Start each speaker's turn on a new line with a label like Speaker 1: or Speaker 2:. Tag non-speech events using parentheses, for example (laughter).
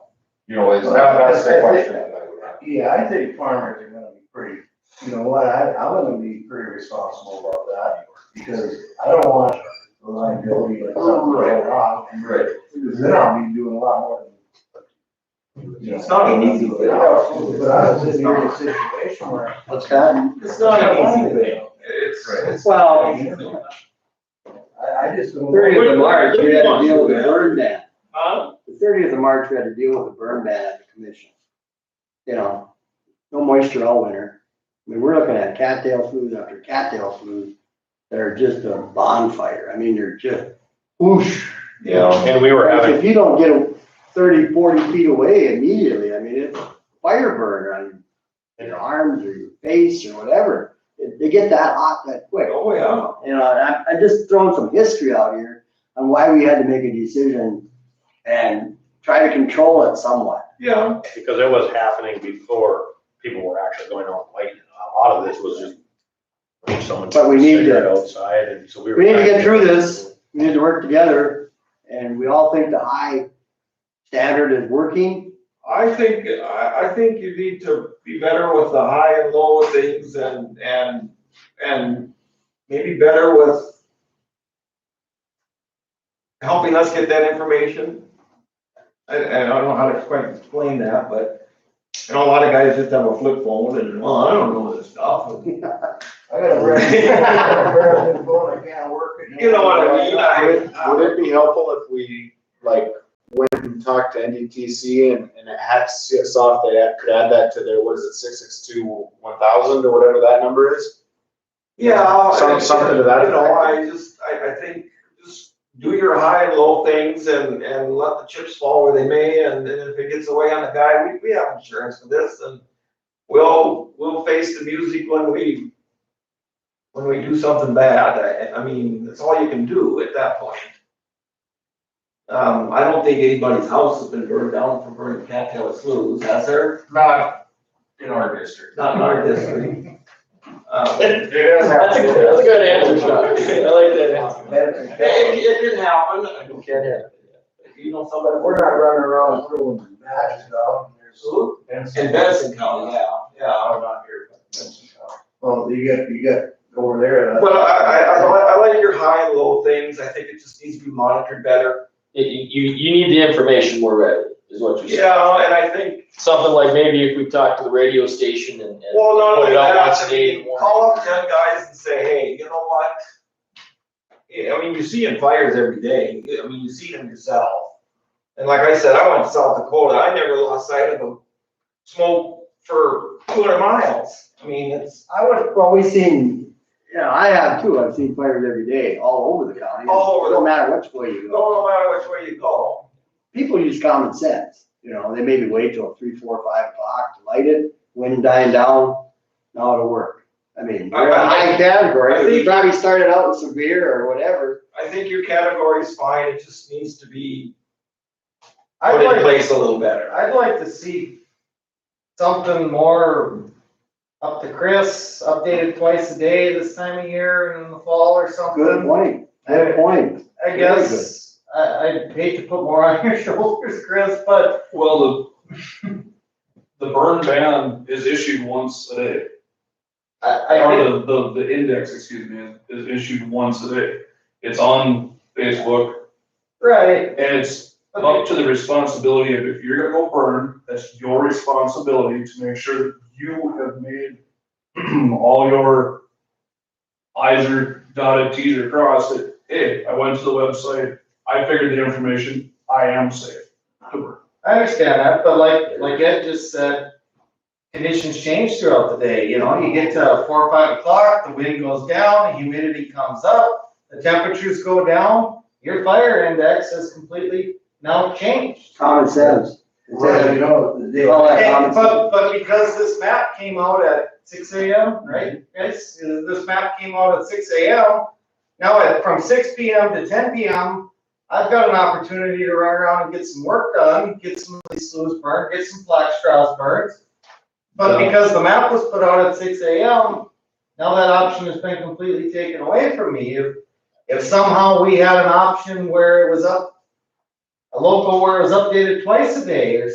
Speaker 1: You know, it's not, that's the question that I would have.
Speaker 2: Yeah, I think farmers are gonna be pretty, you know what, I, I'm gonna be pretty responsible about that, because I don't want the liability of something going wrong.
Speaker 1: Right.
Speaker 2: Because then I'll be doing a lot more than. you know,
Speaker 3: It's not an easy thing.
Speaker 2: But I was in your situation where.
Speaker 4: What's that?
Speaker 3: It's not an easy thing.
Speaker 1: It's,
Speaker 4: Well,
Speaker 2: I, I just don't.
Speaker 4: thirtieth of March, we had to deal with a burn ban.
Speaker 3: Huh?
Speaker 4: The thirtieth of March, we had to deal with a burn ban at the commission. You know, no moisture all winter. I mean, we're looking at cattail smooth after cattail smooth that are just a bonfire. I mean, they're just whoosh.
Speaker 5: You know,
Speaker 3: Oh,
Speaker 5: and we were having,
Speaker 4: If you don't get it 30, 40 feet away immediately, I mean, it's fire burn on your arms or your face or whatever. It- They get that hot that quick.
Speaker 3: Oh, yeah.
Speaker 4: You know, and uh, I, I just throwing some history out here on why we had to make a decision and try to control it somewhat.
Speaker 3: Yeah.
Speaker 5: because it was happening before people were actually going out and lighting. A lot of this was just like someone
Speaker 4: But we need to-
Speaker 5: cigarette outside and so we were.
Speaker 4: We need to get through this. We need to work together and we all think the high standard is working.
Speaker 3: I think, I, I think you need to be better with the high and low things and, and, and maybe better with helping us get that information. I, I don't know how to quite explain that, but, you know, a lot of guys just have a flip phone and, well, I don't know this stuff.
Speaker 2: I got a brand, I got a brand new phone, I can't work it.
Speaker 3: You know what I mean?
Speaker 6: Would
Speaker 3: (laughs) I-
Speaker 6: would it be helpful if we, like, went and talked to NDTC and, and it had, saw if they had- could add that to their, what is it, six six two one thousand or whatever that number is?
Speaker 3: Yeah.
Speaker 6: Some-
Speaker 3: I-
Speaker 6: something to that
Speaker 3: You know,
Speaker 6: effect.
Speaker 3: I just, I, I think, just do your high and low things and, and let the chips fall where they may, and then if it gets away on the guy, we, we have insurance for this, and we'll, we'll face the music when we, when we do something bad, I, I mean, that's all you can do at that point. Um, I don't think anybody's house has been burned down for burning cattail sloughs, has there?
Speaker 1: Not in our
Speaker 3: (laughs)
Speaker 1: district.
Speaker 3: Not in our district. (laughs) Um,
Speaker 1: It has happened.
Speaker 3: good answer, Sean. I like that answer.
Speaker 2: That's-
Speaker 3: It, it didn't happen. I don't care. You know somebody,
Speaker 2: We're not running around throwing matches out, there's.
Speaker 3: in Benson County, yeah, yeah, I'm not here.
Speaker 2: Well, Oh, you got, you got over there. uh,
Speaker 3: But I, I, I like, I like your high and low things. I think it just needs to be monitored better.
Speaker 7: You, you, you need the information more readily, is what you're saying.
Speaker 3: Yeah, and I think,
Speaker 7: Something like maybe if we talk to the radio station and. and
Speaker 3: well, not
Speaker 7: put
Speaker 3: only
Speaker 7: it out
Speaker 3: that,
Speaker 7: once a
Speaker 3: I
Speaker 7: day in the
Speaker 3: mean,
Speaker 7: morning.
Speaker 3: call up ten guys and say, hey, you know what? Yeah, I mean, you're seeing fires every day. I mean, you see them yourself. And like I said, I went to South Dakota. I never lost sight of a smoke for two hundred miles. I mean, it's.
Speaker 4: I would. Well, we've seen, you know, I have too. I've seen fires every day all over the county.
Speaker 3: All over the-
Speaker 4: No matter which way you go.
Speaker 3: No, no matter which way you go.
Speaker 4: people use common sense, you know, they maybe wait till three, four, five o'clock to light it, wind dying down, now it'll work. I mean,
Speaker 3: I- I-
Speaker 4: we're in a high
Speaker 3: I
Speaker 4: category, we
Speaker 3: think-
Speaker 4: probably started out in severe or whatever.
Speaker 3: I think your category's fine, it just needs to be put
Speaker 8: I'd
Speaker 3: in
Speaker 8: like,
Speaker 3: place a little better.
Speaker 8: I'd like to see something more up to Chris, updated twice a day this time of year in the fall or
Speaker 4: Good
Speaker 8: something.
Speaker 4: point, good point.
Speaker 8: I
Speaker 4: Very good.
Speaker 8: guess, I, I'd hate to put more on your shoulders, Chris, but
Speaker 9: Well, the, the burn ban is issued once a day.
Speaker 8: I, I
Speaker 9: Or
Speaker 8: think,
Speaker 9: Oh, the, the, the index, excuse me, is issued once a day. It's on Facebook
Speaker 8: right,
Speaker 9: and it's
Speaker 8: okay,
Speaker 9: up to the responsibility of if you're gonna go burn, that's your responsibility to make sure that you have made (clears throat) all your i's are dotted, t's are crossed, that, hey, I went to the website, I figured the information, I am safe to burn.
Speaker 8: I understand that, but like, like Ed just said, conditions change throughout the day, you know, you get to four, or five o'clock, the wind goes down, the humidity comes up, the temperatures go down, your fire index has completely now changed.
Speaker 4: Common sense. It's
Speaker 2: Well, you
Speaker 4: a-
Speaker 2: know, they.
Speaker 4: Call that
Speaker 8: And,
Speaker 4: common sense.
Speaker 8: but, but because this map came out at six AM, right, guys, Uh, this map came out at six AM. Now, at, from six PM to ten PM, I've got an opportunity to run around and get some work done, get some of these sloughs burned, get some black straws burned. But
Speaker 9: Yeah.
Speaker 8: because the map was put out at six AM, now that option has been completely taken away from me. If, if somehow we had an option where it was up, a local where it was updated twice a day or